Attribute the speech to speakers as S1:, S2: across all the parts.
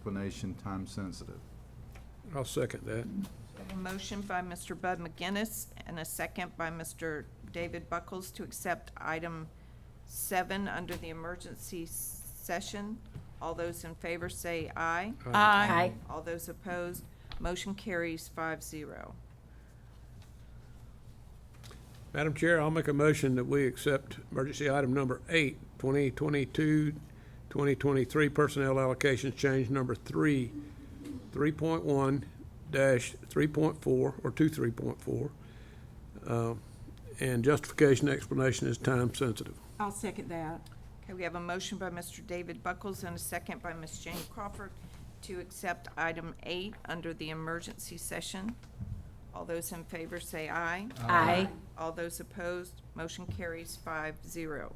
S1: explanation, time sensitive.
S2: I'll second that.
S3: A motion by Mr. Bud McGinnis and a second by Mr. David Buckles to accept item seven under the emergency session. All those in favor say aye.
S4: Aye.
S3: All those opposed, motion carries five zero.
S2: Madam Chair, I'll make a motion that we accept emergency item number eight, 2022, 2023 personnel allocations change number three, 3.1 dash 3.4, or to 3.4. uh, And justification explanation is time sensitive.
S5: I'll second that.
S3: Okay, we have a motion by Mr. David Buckles and a second by Ms. Jane Crawford to accept item eight under the emergency session. All those in favor say aye.
S4: Aye.
S3: All those opposed, motion carries five zero.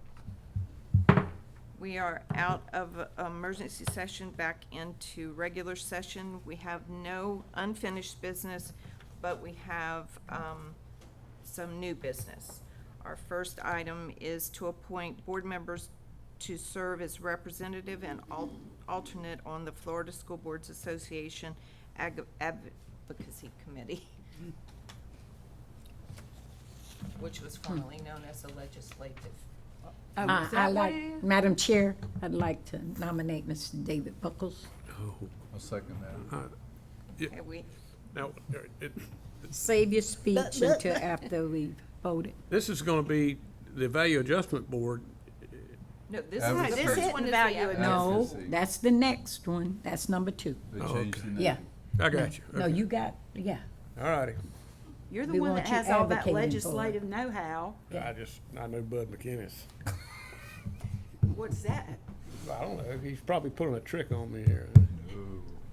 S3: We are out of emergency session, back into regular session. We have no unfinished business, but we have um, some new business. Our first item is to appoint board members to serve as representative and al- alternate on the Florida School Boards Association Ag- Advocacy Committee which was formerly known as the legislative.
S5: Oh,
S4: Uh, I like, Madam Chair, I'd like to nominate Mr. David Buckles.
S1: I'll second that.
S3: Okay, we,
S2: Now, uh, it-
S4: Save your speech until after we've voted.
S2: this is going to be the Value Adjustment Board.
S3: no, this
S1: That
S3: is,
S1: was
S3: the
S1: the
S3: first
S1: first.
S3: one is the.
S4: No,
S1: Advocacy.
S4: that's the next one. That's number two.
S1: They
S2: Oh,
S1: changed the
S2: okay.
S1: name.
S4: Yeah.
S2: I got you.
S4: No, you got, yeah.
S2: All righty.
S5: You're
S4: We
S5: the one
S4: want
S5: that
S4: you
S5: has all that
S4: advocating for it.
S5: legislative know-how.
S2: I just, I know Bud McInnes.
S5: What's that?
S2: I don't know, he's probably pulling a trick on me here.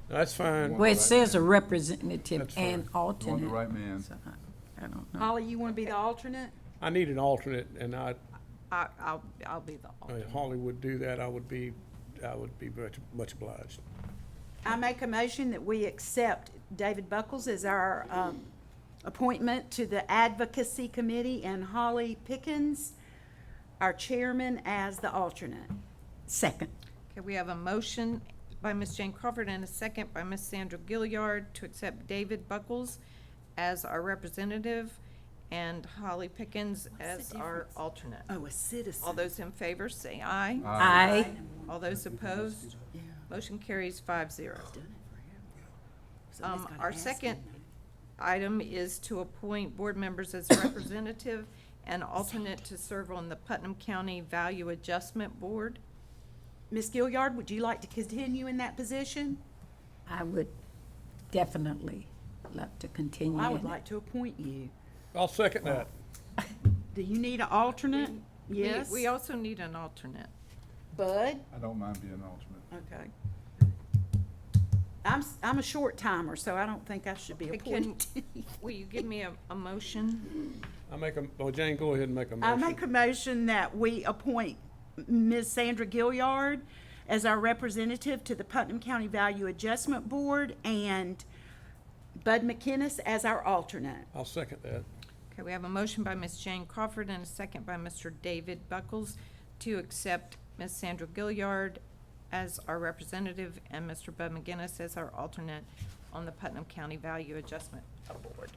S2: That's fine.
S1: Well,
S4: Well, it
S1: that-
S4: says a representative
S2: That's fine.
S4: and
S1: You want the
S4: alternate.
S1: right man.
S4: So, I- I don't know.
S5: Holly, you want to be the alternate?
S2: I need an alternate, and I,
S3: I, I'll, I'll be the alternate.
S2: if Holly would do that, I would be, I would be much, much obliged.
S5: I make a motion that we accept David Buckles as our um, appointment to the Advocacy Committee and Holly Pickens, our chairman, as the alternate.
S4: Second.
S3: Okay, we have a motion by Ms. Jane Crawford and a second by Ms. Sandra Gilliard to accept David Buckles as our representative and Holly Pickens as our alternate.
S5: Oh, a citizen.
S3: All those in favor, say aye.
S4: Aye.
S3: All those opposed, motion carries five zero. Um, our second item is to appoint board members as representative and alternate to serve on the Putnam County Value Adjustment Board.
S5: Ms. Gilliard, would you like to continue in that position?
S4: I would definitely love to continue
S5: I
S4: in
S5: would
S4: it.
S5: like to appoint you.
S2: I'll second that.
S5: Do you need an alternate?
S3: We-
S5: Yes.
S3: We also need an alternate.
S5: Bud?
S1: I don't mind being alternate.
S5: Okay. I'm, s- I'm a short timer, so I don't think I should be
S3: Okay, Can,
S5: appointed.
S3: will you give me a, a motion?
S2: I make a, well, Jane, go ahead and make a
S5: I
S2: motion.
S5: make a motion that we appoint Ms. Sandra Gilliard as our representative to the Putnam County Value Adjustment Board and Bud McKinnis as our alternate.
S2: I'll second that.
S3: Okay, we have a motion by Ms. Jane Crawford and a second by Mr. David Buckles to accept Ms. Sandra Gilliard as our representative and Mr. Bud McGinnis as our alternate on the Putnam County Value Adjustment Board.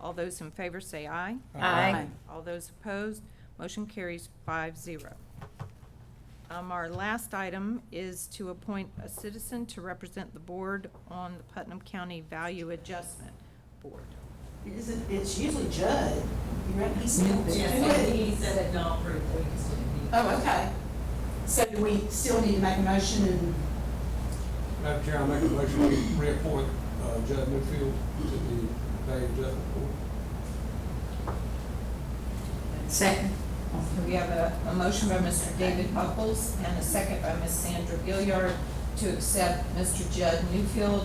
S3: All those in favor say aye.
S4: Aye.
S3: All those opposed, motion carries five zero. Um, our last item is to appoint a citizen to represent the board on the Putnam County Value Adjustment Board.
S6: Isn't, it's usually Judd, right? He's still doing it.
S7: He said it not for three percent.
S6: Oh, okay. So do we still need to make a motion and,
S2: Madam Chair, I make a motion to reappoint uh, Judd Newfield to the Value Adjustment Board.
S4: Second.
S3: We have a, a motion by Mr. David Buckles and a second by Ms. Sandra Gilliard to accept Mr. Judd Newfield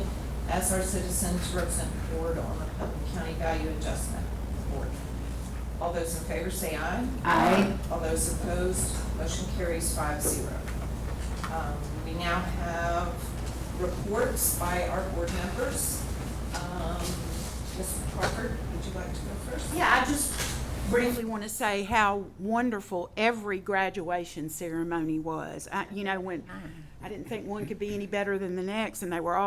S3: as our citizen to represent the board on the Putnam County Value Adjustment Board. All those in favor say aye.
S4: Aye.
S3: All those opposed, motion carries five zero. Um, we now have reports by our board members. Um, Mr. Crawford, would you like to go first?
S5: Yeah, I just briefly want to say how wonderful every graduation ceremony was. I, you know, when I didn't think one could be any better than the next, and they were all.